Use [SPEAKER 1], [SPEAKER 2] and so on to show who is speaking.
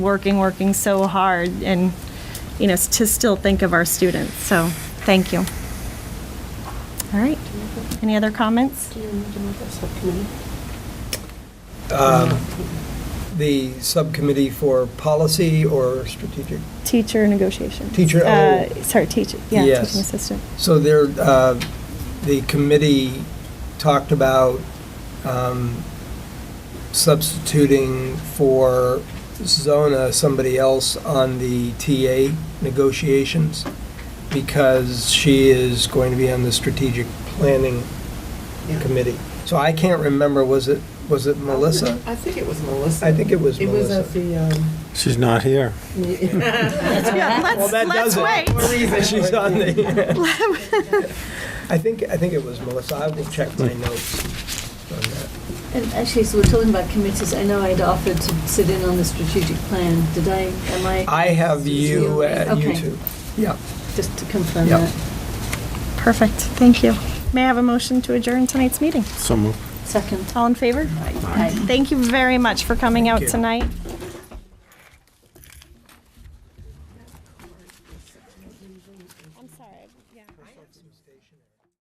[SPEAKER 1] working, working so hard and, you know, to still think of our students. So, thank you. All right. Any other comments?
[SPEAKER 2] um, The subcommittee for policy or strategic?
[SPEAKER 1] Teacher negotiations.
[SPEAKER 2] Teacher,
[SPEAKER 1] Uh,
[SPEAKER 2] oh.
[SPEAKER 1] Sorry, teacher, yeah,
[SPEAKER 2] Yes.
[SPEAKER 1] teaching assistant.
[SPEAKER 2] So there, uh, the committee talked about um, substituting for Zona somebody else on the TA negotiations because she is going to be on the strategic planning committee. So I can't remember, was it, was it Melissa?
[SPEAKER 3] I think it was Melissa.
[SPEAKER 2] I think it was
[SPEAKER 3] It
[SPEAKER 2] Melissa.
[SPEAKER 3] was at the, um,
[SPEAKER 4] She's not here.
[SPEAKER 1] Yeah,
[SPEAKER 2] Well,
[SPEAKER 1] let's,
[SPEAKER 2] that
[SPEAKER 1] let's
[SPEAKER 2] does
[SPEAKER 1] wait.
[SPEAKER 2] it. She's on the. I think, I think it was Melissa. I will check my notes on that.
[SPEAKER 5] And actually, so we're talking about committees, I know I'd offered to sit in on the strategic plan, did I, am I?
[SPEAKER 2] I have you at
[SPEAKER 5] Okay,
[SPEAKER 2] YouTube. Yeah.
[SPEAKER 5] Just to confirm
[SPEAKER 2] Yep.
[SPEAKER 5] that.
[SPEAKER 1] Perfect, thank you. May I have a motion to adjourn tonight's meeting?
[SPEAKER 4] So moved.
[SPEAKER 5] Second.
[SPEAKER 1] All in favor?
[SPEAKER 5] Aye.
[SPEAKER 1] Thank you very much for coming out
[SPEAKER 2] you.
[SPEAKER 1] tonight. I'm sorry, yeah.